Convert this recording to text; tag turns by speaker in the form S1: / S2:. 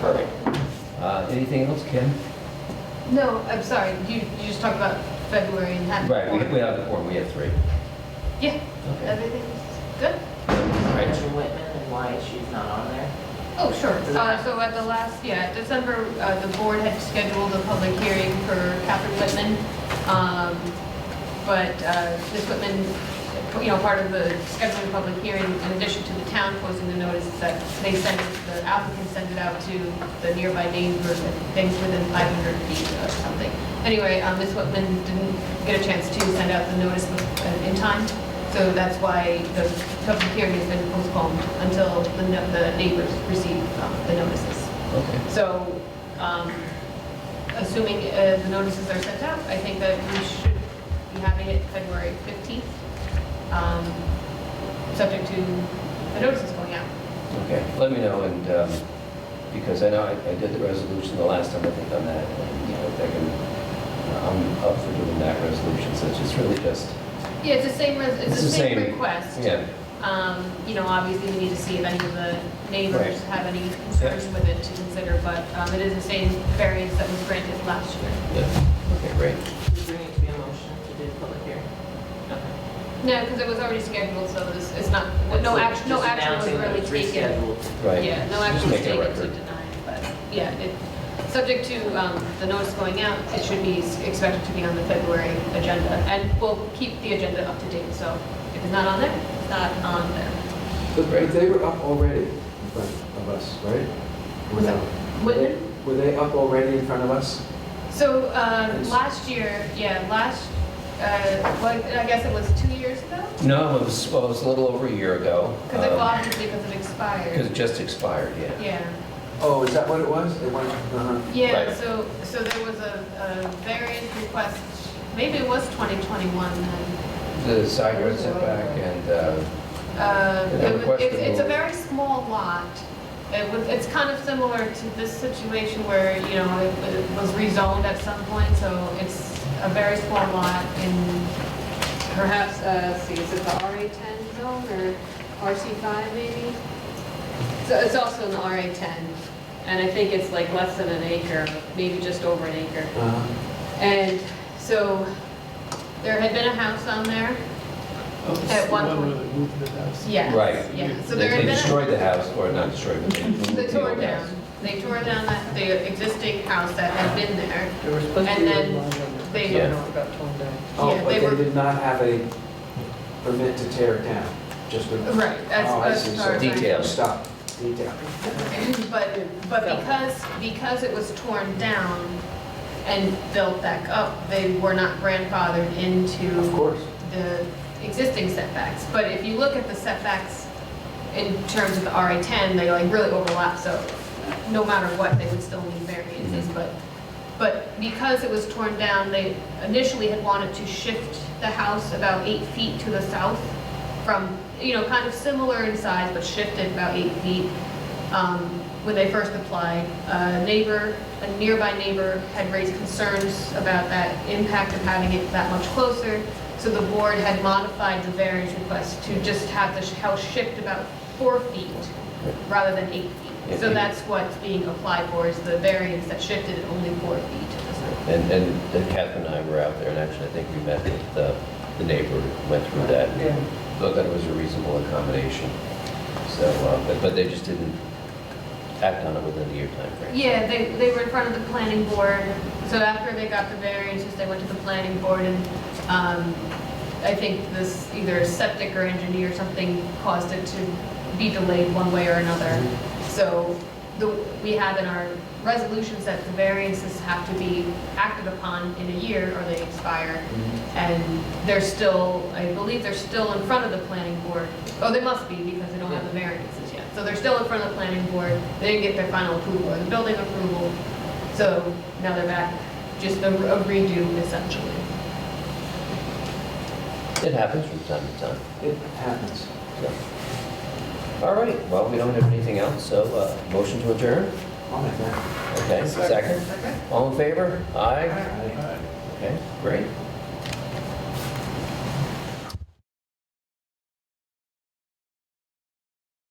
S1: Perfect. Uh, Anything else, Ken?
S2: No, I'm sorry, you, you just talked about February and had.
S1: Right, we we have the forum, we have three.
S2: Yeah,
S1: Okay.
S2: everything's good?
S1: Right.
S3: Andrew Whitman and why she's not on there.
S2: Oh, sure. Uh, So at the last, yeah, December, uh, the board had scheduled a public hearing for Catherine Whitman. Um, But uh, Ms. Whitman, you know, part of the scheduling public hearing, in addition to the town posting the notice, is that they sent, the applicant sent it out to the nearby neighbors and things within 500 feet or something. Anyway, um, Ms. Whitman didn't get a chance to send out the notice uh, in time, so that's why the public hearing has been postponed until the no- the neighbors receive um, the notices.
S1: Okay.
S2: So, um, assuming uh, the notices are sent out, I think that we should be having it February 15th, um, subject to the notices going out.
S1: Okay, let me know, and, um, because I know I I did the resolution the last time I think on that, and, you know, if I can, uh, I'm up for doing that resolution, so it's just really just,
S2: Yeah, it's the same, res- it's the same request.
S1: yeah,
S2: Um, You know, obviously, we need to see if any of the
S1: Right.
S2: neighbors have any concerns with it to consider, but um, it is the same variance that was granted last year.
S1: yeah, okay, great.
S3: Does there need to be a motion to do the public hearing? Okay.
S2: No, because it was already scheduled, so this, it's not, no
S3: That's
S2: action, no
S3: just
S2: action was
S3: announcing that
S2: really
S3: it's
S2: taken.
S3: rescheduled.
S1: Right.
S2: Yeah, no
S1: Just
S2: action was
S1: make it a
S2: taken to
S1: record.
S2: deny, but, yeah, it, subject to um, the notice going out, it should be s- expected to be on the February agenda. And we'll keep the agenda up to date, so if it's not on there, it's not on there.
S4: But but they were up already in front of us, right? Or
S2: Was
S4: no?
S2: it
S4: Were
S2: Whitman?
S4: they- Were they up already in front of us?
S2: So um, last year, yeah, last, uh, well, I guess it was two years ago?
S1: No, it was, well, it was a little over a year ago.
S2: Because it,
S1: um,
S2: well, obviously, because it
S1: Because
S2: expired.
S1: it just expired, yeah.
S2: Yeah.
S4: Oh, is that what it was? They went, uh-huh.
S2: Yeah,
S1: Right.
S2: so, so there was a, a variance request, maybe it was 2021 then.
S1: The side yard setback and, uh,
S2: Uh,
S1: They
S2: it was-
S1: requested
S2: It's, it's a
S1: more.
S2: very small lot. It was, it's kind of similar to this situation where, you know, it it was rezoned at some point, so it's a very small lot in perhaps, uh, let's see, is it the RA10 zone or RC5 maybe? So it's also in the RA10, and I think it's like less than an acre, maybe just over an acre.
S4: Uh-huh.
S2: And so there had been a house on there. At one
S5: Oh, The
S2: point.
S5: where they moved the house.
S2: Yes.
S1: Right.
S2: Yeah, so
S1: they
S2: there had
S1: they
S2: been. a-
S1: destroyed the house, or not destroyed, but they moved
S2: They
S1: the
S2: tore
S1: old house.
S2: down, they tore down that- the existing house that had been there.
S6: There was supposed to
S2: And
S6: be a
S2: then
S6: line on there. I
S2: they-
S6: don't know, it got torn down.
S4: Oh,
S2: Yeah,
S4: but
S2: they
S4: they
S2: were-
S4: did not have a permit to tear it down, just for.
S2: Right, that's-
S4: Oh, I
S2: that's
S4: see.
S2: far as
S1: I- Detail.
S4: Stop, detail.
S2: But, but because, because it was torn down and built back up, they were not grandfathered
S4: Of
S2: into
S4: course.
S2: the existing setbacks. But if you look at the setbacks in terms of the RA10, they like really overlap, so no matter what, they would still need variances. But, but because it was torn down, they initially had wanted to shift the house about eight feet to the south from, you know, kind of similar in size, but shifted about eight feet um, when they first applied. A neighbor, a nearby neighbor had raised concerns about that impact of having it that much closer, so the board had modified the variance request to just have the sh- house shift about four feet rather than eight feet. So that's what's being applied for, is the variance that shifted it only four feet to the south.
S1: And, and then Catherine and I were out there, and actually, I think we met with uh, the neighbor, who went through that, and
S6: Yeah.
S1: thought that it was a reasonable accommodation. So, uh, but, but they just didn't act on it within the year timeframe.
S2: Yeah, they, they were in front of the planning board, so after they got the variances, they went to the planning board and, um, I think this, either septic or engineer or something caused it to be delayed one way or another. So, the, we have in our resolutions that the variances have to be acted upon in a year or they expire. And they're still, I believe they're still in front of the planning board. Oh, they must be because they don't have the variances yet. So they're still in front of the planning board. They didn't get their final approval or the building approval. So now they're back, just a a redo essentially.
S1: It happens from time to time.
S4: It happens.
S1: so. All right, well, we don't have anything else, so uh, motion to adjourn?
S4: I'll make that.
S1: Okay, second? All in favor? Aye?
S4: Aye.
S1: Okay, great.